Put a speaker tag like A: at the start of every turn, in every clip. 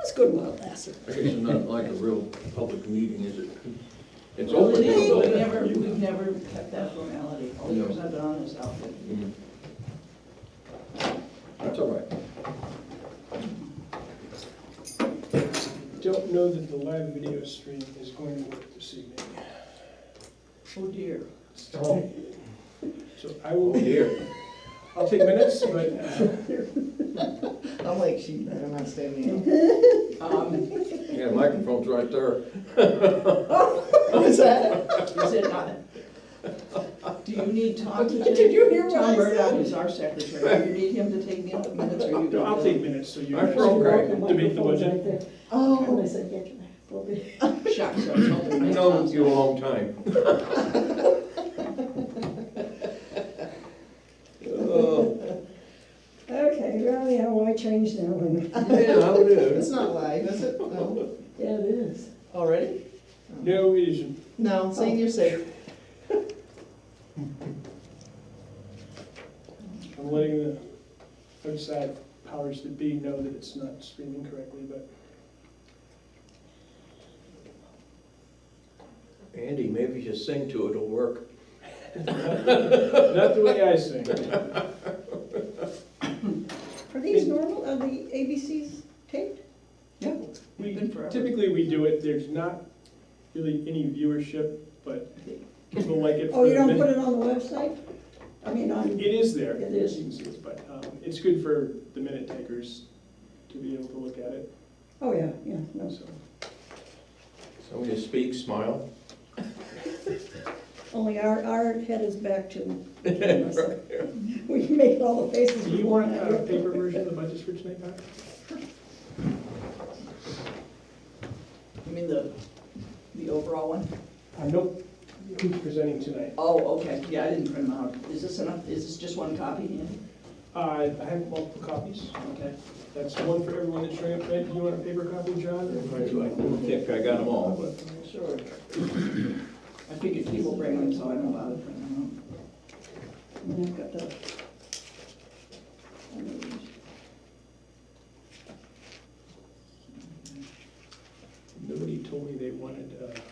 A: It's a good while lasted.
B: This is not like a real public meeting, is it? It's
C: Well,
B: open.
C: it is, but
B: it's open.
C: we never, we've never kept that formality, all the years I've been on this outfit.
B: Mhm. That's all right.
D: Don't know that the live video stream is going to work this evening.
C: Oh dear.
D: So I will, I'll take minutes, but uh,
E: I'm like, she better not stand me
C: Um,
B: Yeah, microphone's right there.
E: up. What's Oh, that?
C: is it not? Do you need Tom to?
E: Did
C: take-
E: you hear what I
C: Tom Murdock
E: said?
C: is our secretary, do you need him to take me up the minutes, or you?
D: no, I'll
C: can-
D: take minutes so you
B: Our
D: guys
B: program.
D: can debate the budget.
A: And I
E: Oh,
A: said, get back, we'll be.
C: Shucks, I was hoping.
B: I've
C: my
B: known
C: Tom's
B: you a long time. Oh,
A: Okay, really, how I changed now, and,
B: Yeah, I would
E: it's
B: do.
E: not live, is it? No,
A: yeah, it is.
E: already?
D: No, it isn't.
E: No, saying you're safe.
D: I'm letting the outside powers that be know that it's not streaming correctly, but
B: Andy, maybe just sing to it, it'll work.
D: not the way I sing.
A: Are these normal, are the ABCs taped?
C: Yeah.
D: We
C: Been forever.
D: Typically, we do it, there's not really any viewership, but people like it.
A: Oh, you
D: for
A: don't
D: the-
A: put it on the website? I mean, on,
D: It is there.
A: It is.
D: You can see it, But um, it's good for the minute takers to be able to look at it,
A: oh, yeah, yeah, no,
D: so.
B: So when you speak, smile.
A: only our, our head is back to. We make all the faces.
D: Do you want a paper version of the budgets for tonight, Pat?
C: I mean, the, the overall one?
D: Uh, nope, who's presenting tonight?
C: Oh, okay, yeah, I didn't print them out. Is this enough, is this just one copy, Andy?
D: Uh, I have multiple copies,
C: Okay.
D: that's one for everyone that's showing up tonight, do you want a paper copy, John?
B: I
D: or-
B: think I got them all, but.
C: Sure. I figured people bring them, so I don't bother printing them
A: And I've got the-
D: Nobody told me they wanted a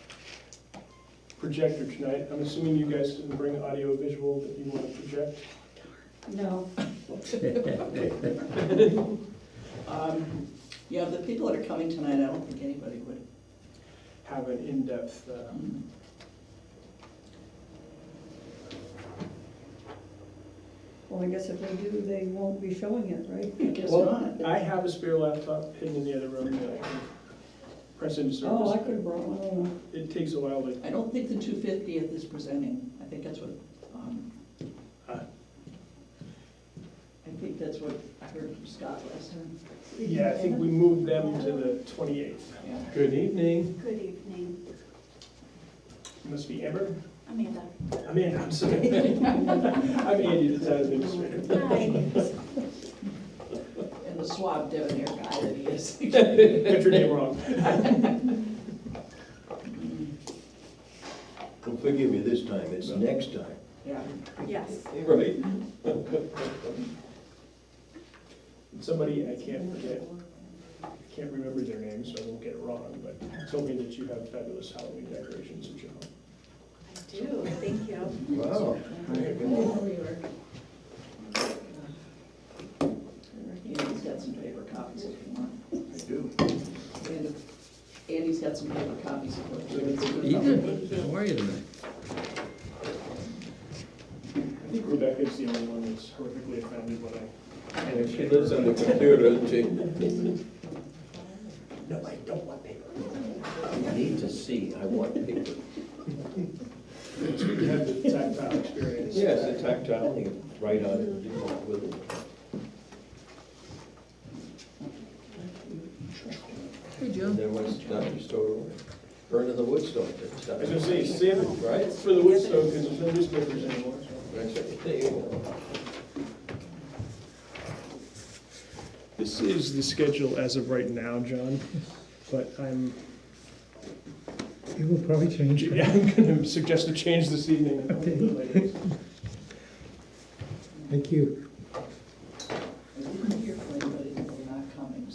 D: projector tonight, I'm assuming you guys didn't bring audio visual that you want to project?
A: No,
C: out. Um, Yeah, the people that are coming tonight, I don't think anybody would.
D: Have an in-depth, uh,
A: well, I guess if they do, they won't be showing it, right?
C: I guess
D: Well,
C: not.
D: I have a spare laptop hidden in the other room that I can press into
A: Oh, I
D: service.
A: could have brought one, I don't know.
D: It takes a while to,
C: I don't think the two fiftieth is presenting. I think that's what, um,
B: Uh,
D: Huh?
C: I think that's what I heard from Scott last time.
D: yeah, I think we moved them to the twenty-eighth.
C: Yeah.
B: Good evening.
F: Good evening,
D: Must be Amber?
F: Amanda.
D: I'm in, I'm sorry. I'm Andy, the town administrator.
F: Hi.
C: And the suave debonair guy that he is.
D: Got your name wrong.
B: Well, forgive me this time, it's next time.
C: Yeah.
F: Yes,
B: Right.
D: Somebody, I can't forget, I can't remember their name, so I won't get it wrong, but told me that you have fabulous Halloween decorations at your home.
F: I do, thank you.
B: Wow.
C: Andy's got some paper copies if you want.
B: I do.
C: And Andy's got some paper copies of what.
G: Ethan, how are you tonight?
D: I think Rebecca's the only one that's horrifically offended when I,
B: And if she lives on the computer, doesn't she?
D: no, I don't want paper.
B: I need to see, I want paper.
D: It's good to have the tactile experience.
B: Yes, the tactile, you can write on it, do it with it.
G: Hey,
B: And
G: Jim.
B: then once it's done, you store it away. Burn in the wood stove, that's
D: I
B: done.
D: was gonna say, save it
B: Right?
D: for the wood stove, because there's no newspapers anymore. so.
B: That's it. There you go.
D: This is the schedule as of right now, John, but I'm,
H: It will probably change.
D: yeah, I'm gonna suggest a change this evening.
H: Thank you.